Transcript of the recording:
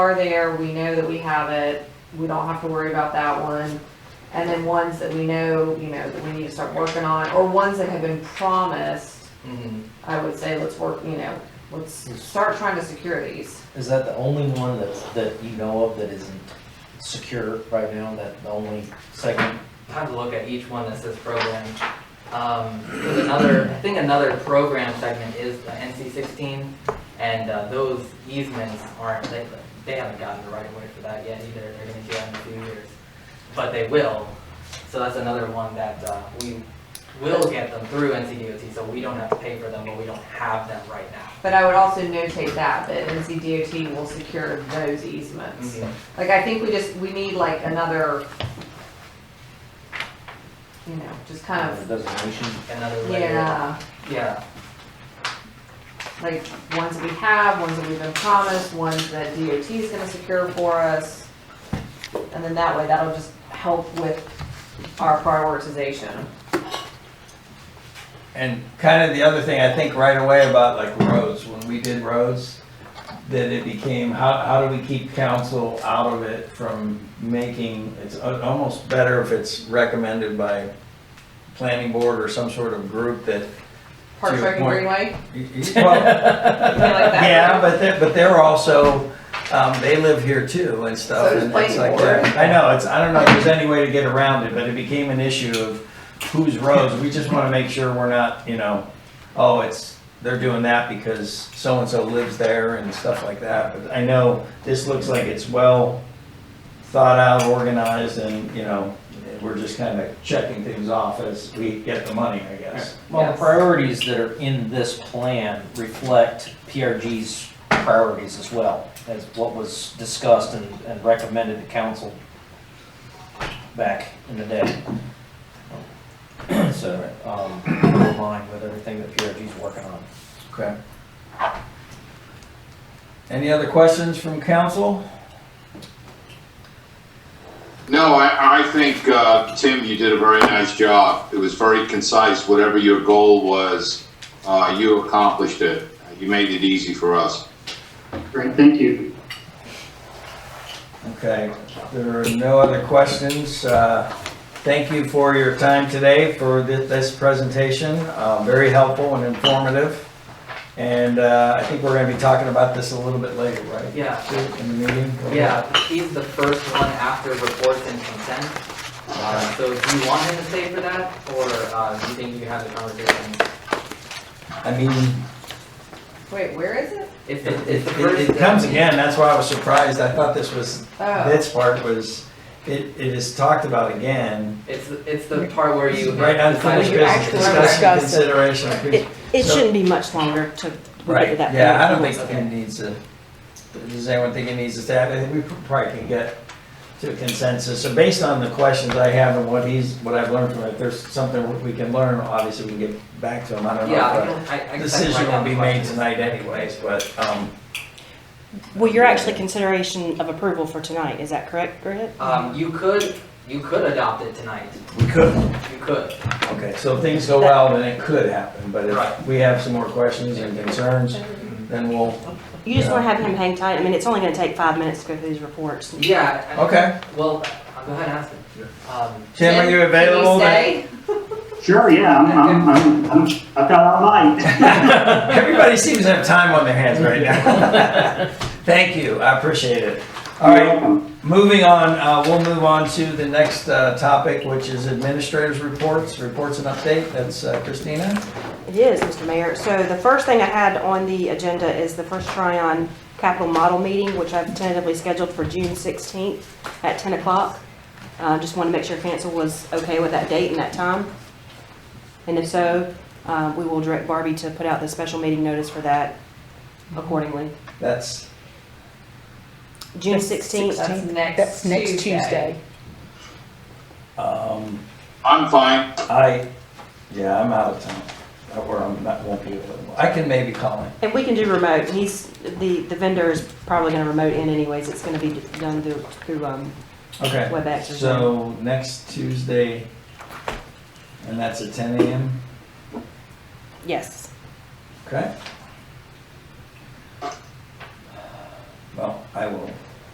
are there, we know that we have it, we don't have to worry about that one. And then ones that we know, you know, that we need to start working on, or ones that have been promised, Mhm. I would say, let's work, you know, let's start trying to secure these. Is that the only one that, that you know of that isn't secure right now, that the only segment? I have to look at each one that says program. Um, there's another, I think another program segment is the NC sixteen, and, uh, those easements aren't, they, they haven't gotten the right of way for that yet either, they're gonna do that in a few years. But they will, so that's another one that, uh, we will get them through NCDOT, so we don't have to pay for them, but we don't have them right now. But I would also notate that, that NCDOT will secure those easements. Mhm. Like, I think we just, we need like another, you know, just kind uh, of, Designation? Another layer, yeah, yeah, like ones that we have, ones that we've been promised, ones that DOT is gonna secure for us. And then that way, that'll just help with our prioritization. And kind of the other thing I think right away about like roads, when we did roads, that it became, how, how do we keep council out of it from making, it's a- almost better if it's recommended by planning board or some sort of group that, Park To your Rec and point. Greenway, well, something like that. yeah, but they're, but they're also, um, they live here too and stuff. So does and it's planning like that. I know, it's, I don't know if there's any way to get around it, but it became an issue of whose roads, we just wanna make sure we're not, you know, oh, it's, they're doing that because so-and-so lives there and stuff like that, but I know this looks like it's well thought out, organized, and, you know, we're just kinda checking things off as we get the money, I guess. Well, the Yes. priorities that are in this plan reflect PRG's priorities as well, as what was discussed and, and recommended to council back in the day. So, um, we're in line with everything that PRG's working on. Okay. Any other questions from council? No, I, I think, uh, Tim, you did a very nice job. It was very concise. Whatever your goal was, uh, you accomplished it. You made it easy for us. Great, thank you. Okay, there are no other questions. Uh, Thank you for your time today for thi- this presentation. Uh, Very helpful and informative. And uh, I think we're going to be talking about this a little bit later, right? yeah. In the meeting? Yeah, he's the first one after reports and consent. Uh, So do you want him to stay for that, or uh, do you think you can have the conversation? I mean, Wait, where is it? It's it- the, it's the it first. it comes again, that's why I was surprised. I thought this was, Oh, this part was, it it is talked about again. It's, it's the part where you. Right, unfinished decide- business, discussion, consideration. of- It, it So- shouldn't be much longer to, we get to Right, that. yeah, I don't point. think it needs to, does anyone think it needs to stay? I think we probably can get to a consensus. So based on the questions I have and what he's, what I've learned from it, if there's something we can learn, obviously we can get back to him, I don't know. Yeah, I but can, I, I can. Decision will be made tonight anyways, but, um, Well, you're actually consideration of approval for tonight, is that correct, Greg? Um, you could, you could adopt it tonight, we could, you could. okay, so if things go well, then it could happen. But Right. if we have some more questions and concerns, then we'll, You just yeah. wanna have him hang tight, I mean, it's only gonna take five minutes to go through these reports. Yeah. I- okay. Well, I'll go ahead and ask him. Um, Tim, are you Can available? you stay? Sure, yeah, I'm, I'm, I'm, I'm- I've got all night. Everybody seems to have time on their hands right now. Thank you, I appreciate it. All right, Moving on, uh, we'll move on to the next uh, topic, which is administrators' reports, reports and update. That's uh, Christina. It is, Mr. Mayor. So the first thing I had on the agenda is the first try-on capital model meeting, which I've tentatively scheduled for June 16th at 10 o'clock. Uh, Just want to make sure council was okay with that date and that time. And if so, uh, we will direct Barbie to put out the special meeting notice for that accordingly. That's, June uh, 16th, That's next That's next Tuesday. um, I'm fine. I, yeah, I'm out of town. I- Or I'm not, won't be available. I can maybe call him. and we can do remote. He's, the the vendor is probably going to remote in anyways. It's going to be done through through um, Okay. WebEx or Zoom. So next Tuesday, and that's at 10 a.m. Yes. Okay? Well, I will